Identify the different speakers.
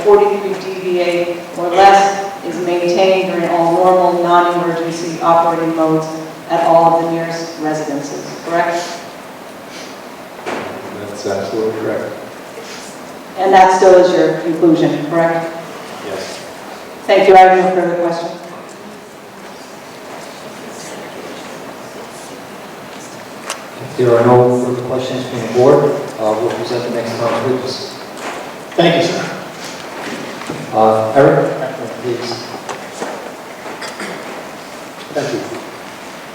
Speaker 1: 40-degree DVA or less is maintained during all normal, non-emergency operating modes at all of the nearest residences, correct?
Speaker 2: That's absolutely correct.
Speaker 1: And that still is your conclusion, correct?
Speaker 2: Yes.
Speaker 1: Thank you, I have no further questions.
Speaker 3: If there are no further questions from the board, uh, we'll present the next round of witnesses.
Speaker 4: Thank you, sir.
Speaker 3: Uh, Eric, please.